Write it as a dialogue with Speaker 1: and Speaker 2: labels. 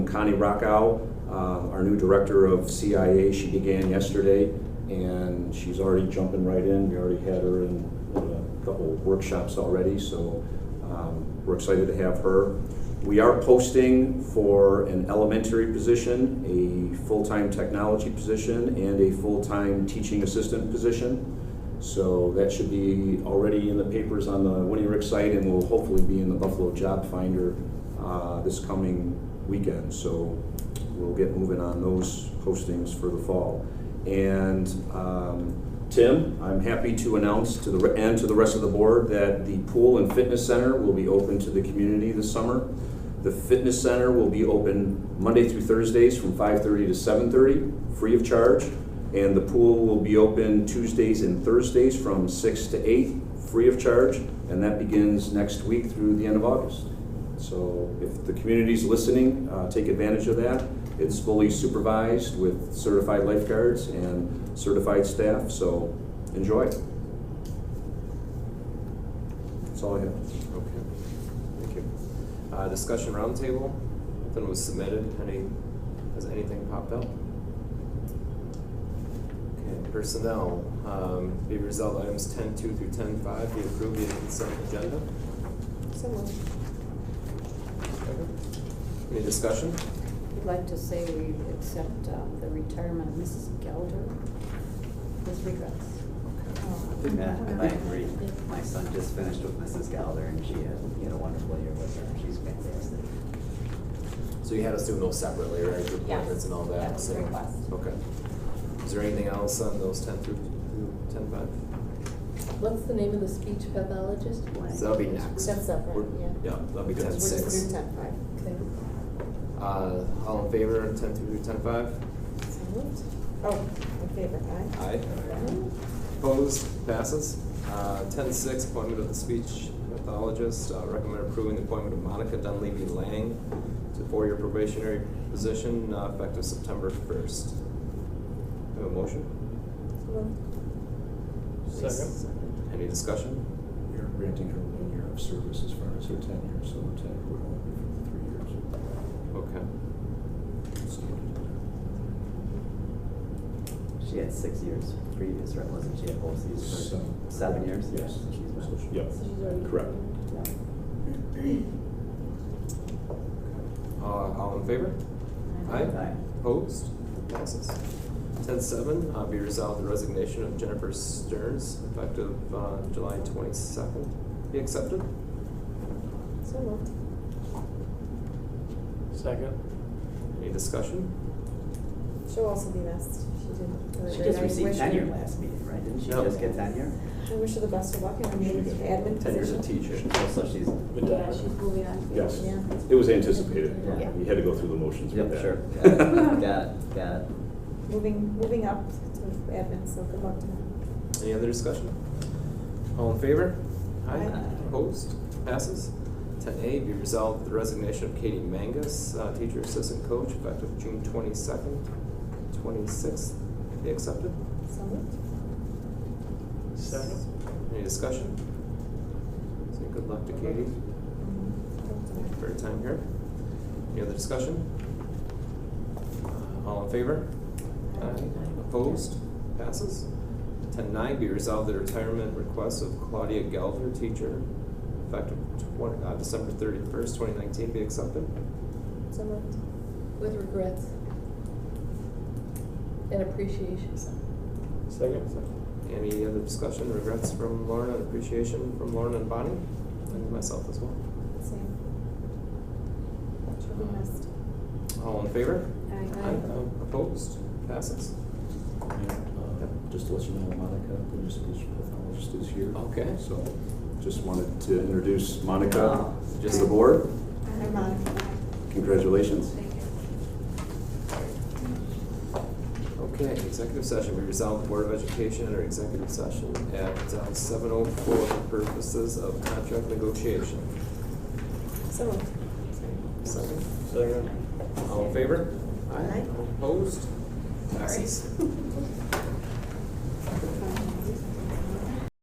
Speaker 1: Connie Rockow, uh, our new director of CIA, she began yesterday, and she's already jumping right in. We already had her in a couple of workshops already, so um, we're excited to have her. We are posting for an elementary position, a full-time technology position, and a full-time teaching assistant position. So that should be already in the papers on the Winnie Rick site and will hopefully be in the Buffalo Job Finder uh, this coming weekend. So we'll get moving on those postings for the fall. And um, Tim, I'm happy to announce to the, and to the rest of the board that the pool and fitness center will be open to the community this summer. The fitness center will be open Monday through Thursdays from 5:30 to 7:30, free of charge. And the pool will be open Tuesdays and Thursdays from 6 to 8, free of charge. And that begins next week through the end of August. So if the community's listening, uh, take advantage of that. It's fully supervised with certified lifeguards and certified staff, so enjoy. That's all I have.
Speaker 2: Okay, thank you. Uh, discussion roundtable, nothing was submitted, any, has anything popped up? Okay, personnel, um, be resolved items ten two through ten five be approved via consent agenda.
Speaker 3: So moved.
Speaker 2: Any discussion?
Speaker 3: I'd like to say we accept uh, the retirement of Mrs. Gelder with regrets.
Speaker 4: Yeah, I agree. My son just finished with Mrs. Gallagher and she had, he had a wonderful year with her. She's fantastic.
Speaker 2: So you had us do those separately, right, the
Speaker 5: Yes.
Speaker 2: appointments and all that?
Speaker 5: That was
Speaker 2: so-
Speaker 5: the request.
Speaker 2: Okay. Is there anything else on those ten through through ten five?
Speaker 6: What's the name of the speech pathologist?
Speaker 2: So that'll be next.
Speaker 5: That's separate,
Speaker 2: We're-
Speaker 5: yeah.
Speaker 2: Yeah, that'll be ten
Speaker 3: We're
Speaker 2: six.
Speaker 3: just through ten five.
Speaker 6: Okay.
Speaker 2: Uh, all in favor, of ten through ten five?
Speaker 5: So moved.
Speaker 3: Oh, in favor, aye.
Speaker 2: Aye. Opposed, passes. Uh, ten six, appointment of the speech pathologist, uh, recommend approving the appointment of Monica Dunleavy Lang to four-year probationary position, uh, effective September first. Have a motion?
Speaker 3: Second.
Speaker 2: Any discussion?
Speaker 1: You're granting her one year of service as far as her tenure, so her tenure would only be for three years.
Speaker 2: Okay.
Speaker 1: So,
Speaker 4: She had six years previous, right? Wasn't she at both seasons?
Speaker 1: Seven.
Speaker 4: Seven years? Yeah,
Speaker 1: Yes.
Speaker 4: She's
Speaker 1: So she-
Speaker 4: been.
Speaker 1: Yep.
Speaker 6: So she's already-
Speaker 1: Correct.
Speaker 4: Yeah.
Speaker 2: Uh, all in favor? Aye.
Speaker 4: Aye.
Speaker 2: Opposed? Passes. Ten seven, uh, be resolved the resignation of Jennifer Stearns effective, uh, July twenty-second. Be accepted?
Speaker 3: So moved.
Speaker 7: Second.
Speaker 2: Any discussion?
Speaker 3: She'll also be missed. She did.
Speaker 4: She just received tenure last meeting, right? Didn't she
Speaker 2: No.
Speaker 4: just get tenure?
Speaker 3: I wish her the best of luck in her new admin
Speaker 2: Tenure's a
Speaker 3: position.
Speaker 2: teacher.
Speaker 4: So she's,
Speaker 6: Yeah, she's moving on.
Speaker 1: Yes,
Speaker 3: Yeah.
Speaker 1: it was anticipated.
Speaker 4: Yeah.
Speaker 1: We had to go through the motions with
Speaker 4: yep,
Speaker 1: that.
Speaker 4: sure. Got it. Got it, got it.
Speaker 3: Moving, moving up to admin, so good luck to her.
Speaker 2: Any other discussion? All in favor?
Speaker 3: Aye.
Speaker 2: Opposed? Passes. Ten A, be resolved the resignation of Katie Mangus, uh, teacher assistant coach, effective June twenty-second, twenty-sixth. Be accepted.
Speaker 3: So moved.
Speaker 7: Second.
Speaker 2: Any discussion? Say good luck to Katie
Speaker 3: Mm-hmm.
Speaker 2: for her time here. Any other discussion? Uh, All in favor? Aye. Opposed? Passes. Ten nine, be resolved the retirement request of Claudia Gelder, teacher, effective twen- uh, December thirty-first, twenty nineteen, be accepted.
Speaker 3: So moved.
Speaker 6: With regrets. And appreciation.
Speaker 7: Second.
Speaker 2: Any other discussion, regrets from Lauren, and appreciation from Lauren and Bonnie, and myself as well?
Speaker 3: Same. She'll be missed.
Speaker 2: All in favor?
Speaker 3: Aye.
Speaker 2: Uh, Opposed? Passes.
Speaker 1: Uh, Just to let you know, Monica, the new speech pathologist is here.
Speaker 2: Okay.
Speaker 1: So just wanted to introduce Monica
Speaker 4: Wow.
Speaker 1: to the board.
Speaker 3: Hi, Monica.
Speaker 1: Congratulations.
Speaker 2: Okay, executive session, we resolve the Board of Education under executive session at seven oh four for purposes of contract negotiation.
Speaker 3: So moved.
Speaker 2: Second,
Speaker 7: Second.
Speaker 2: all in favor?
Speaker 3: Aye.
Speaker 2: Opposed? Passes.